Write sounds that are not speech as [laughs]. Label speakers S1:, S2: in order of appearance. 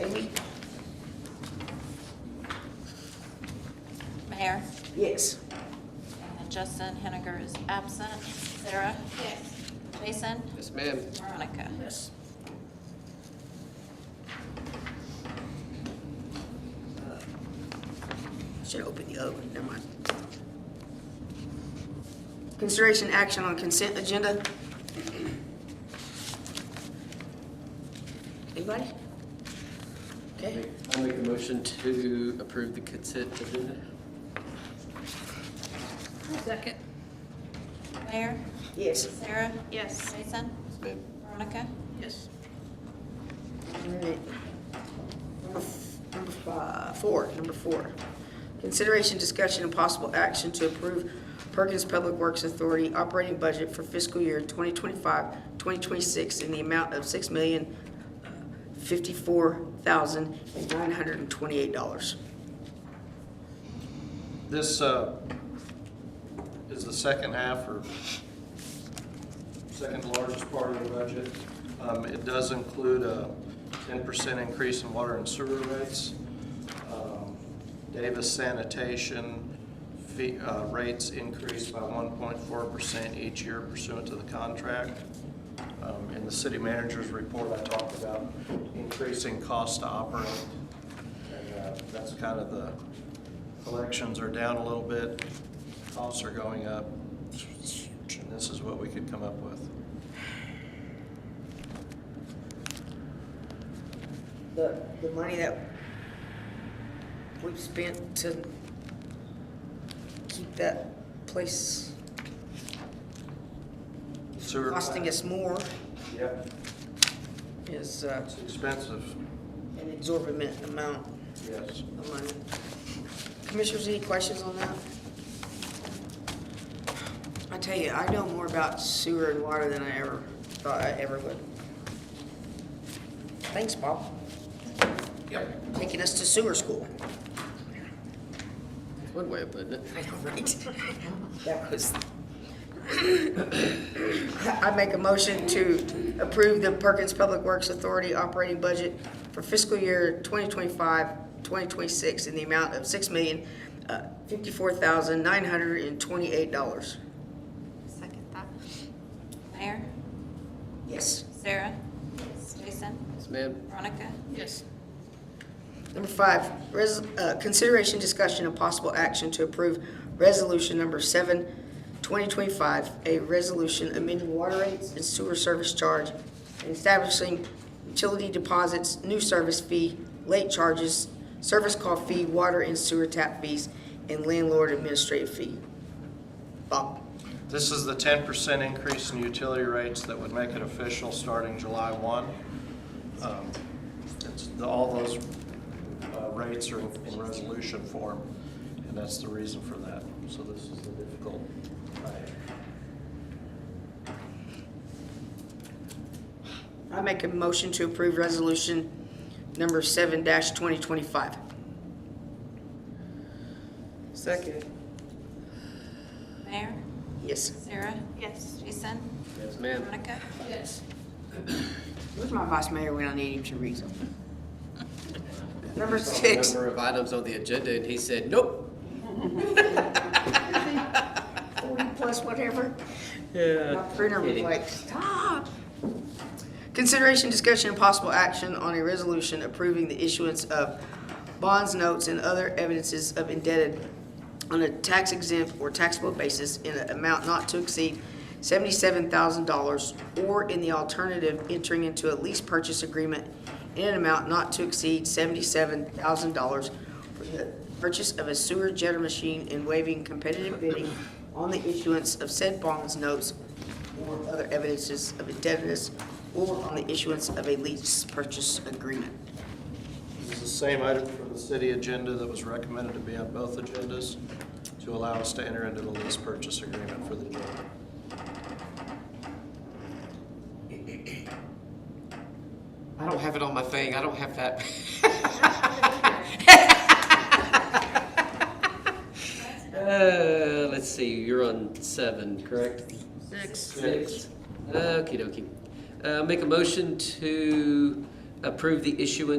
S1: a week.
S2: Mayor,
S1: Yes.
S2: and Justin Henniger is absent. Sarah? Yes. Jason?
S3: Yes, ma'am.
S2: Veronica?
S1: Yes. Uh, Should open the oven, never mind. Consideration action on consent agenda. Anybody? Okay,
S3: I'll make a motion to approve the consent agenda.
S4: Second.
S2: Mayor,
S1: yes.
S2: Sarah?
S4: Yes.
S2: Jason?
S3: Yes, ma'am.
S2: Veronica?
S1: Yes. Alright. Number f- number five, four, number four. Consideration, discussion, and possible action to approve Perkins Public Works Authority operating budget for fiscal year 2025, 2026 in the amount of six million uh, fifty-four thousand and nine hundred and twenty-eight dollars.
S5: This uh, is the second half or second largest part of the budget. Um, It does include a 10% increase in water and sewer rates. Um, Davis sanitation fee- uh, rates increased by 1.4% each year pursuant to the contract. Um, In the city manager's report, I talked about increasing cost to operate. And uh, that's kind of the, collections are down a little bit, costs are going up. And this is what we could come up with.
S1: The, the money that we've spent to keep that place
S5: Sewer.
S1: costing us more
S5: Yep,
S1: is, uh,
S5: it's expensive,
S1: an exorbitant amount
S5: yes.
S1: of money. Commissioners, any questions on that? I tell you, I know more about sewer and water than I ever thought I ever would. Thanks, Bob. Yep. Taking us to sewer school.
S3: One way of putting it.
S1: I know, right? [laughs] That was. [coughs] I make a motion to approve the Perkins Public Works Authority operating budget for fiscal year 2025, 2026 in the amount of uh, $6,054,928.
S4: Second that.
S2: Mayor,
S1: Yes.
S2: Sarah? Jason?
S3: Yes, ma'am.
S2: Veronica?
S1: Yes. Number five, res, uh, consideration, discussion, and possible action to approve resolution number seven, twenty twenty-five, a resolution amending water rates and sewer service charge and establishing utility deposits, new service fee, late charges, service call fee, water and sewer tap fees, and landlord administrative fee. Bob?
S5: This is the ten percent increase in utility rates that would make it official starting July one. Um, it's- the- All those uh, rates are in resolution form, and that's the reason for that. So this is the difficult. item.
S1: I make a motion to approve resolution number seven dash twenty twenty-five. Second.
S2: Mayor,
S1: Yes.
S2: Sarah?
S4: Yes.
S2: Jason?
S3: Yes, ma'am.
S2: Veronica?
S1: Where's my vice mayor when I need him to read something? Number six,
S3: Number of items on the agenda, and he said, nope.
S1: forty [laughs] plus whatever. Yeah. My printer was
S3: Kidding.
S1: like, stop. Consideration, discussion, and possible action on a resolution approving the issuance of bonds, notes, and other evidences of indebted on a tax exempt or taxable basis in an amount not to exceed seventy-seven thousand dollars, or in the alternative, entering into a lease purchase agreement in an amount not to exceed seventy-seven thousand dollars for the purchase of a sewer jetter machine and waiving competitive bidding on the issuance of said bonds, notes, or other evidences of indebtedness, or on the issuance of a lease purchase agreement.
S5: This is the same item from the city agenda that was recommended to be on both agendas to allow us to enter into the lease purchase agreement for the jail.
S3: I don't have it on my thing. I don't have that. [laughs] Uh, let's see, you're on seven, correct? Six. Okey dokey. Uh, make a motion to approve the issuance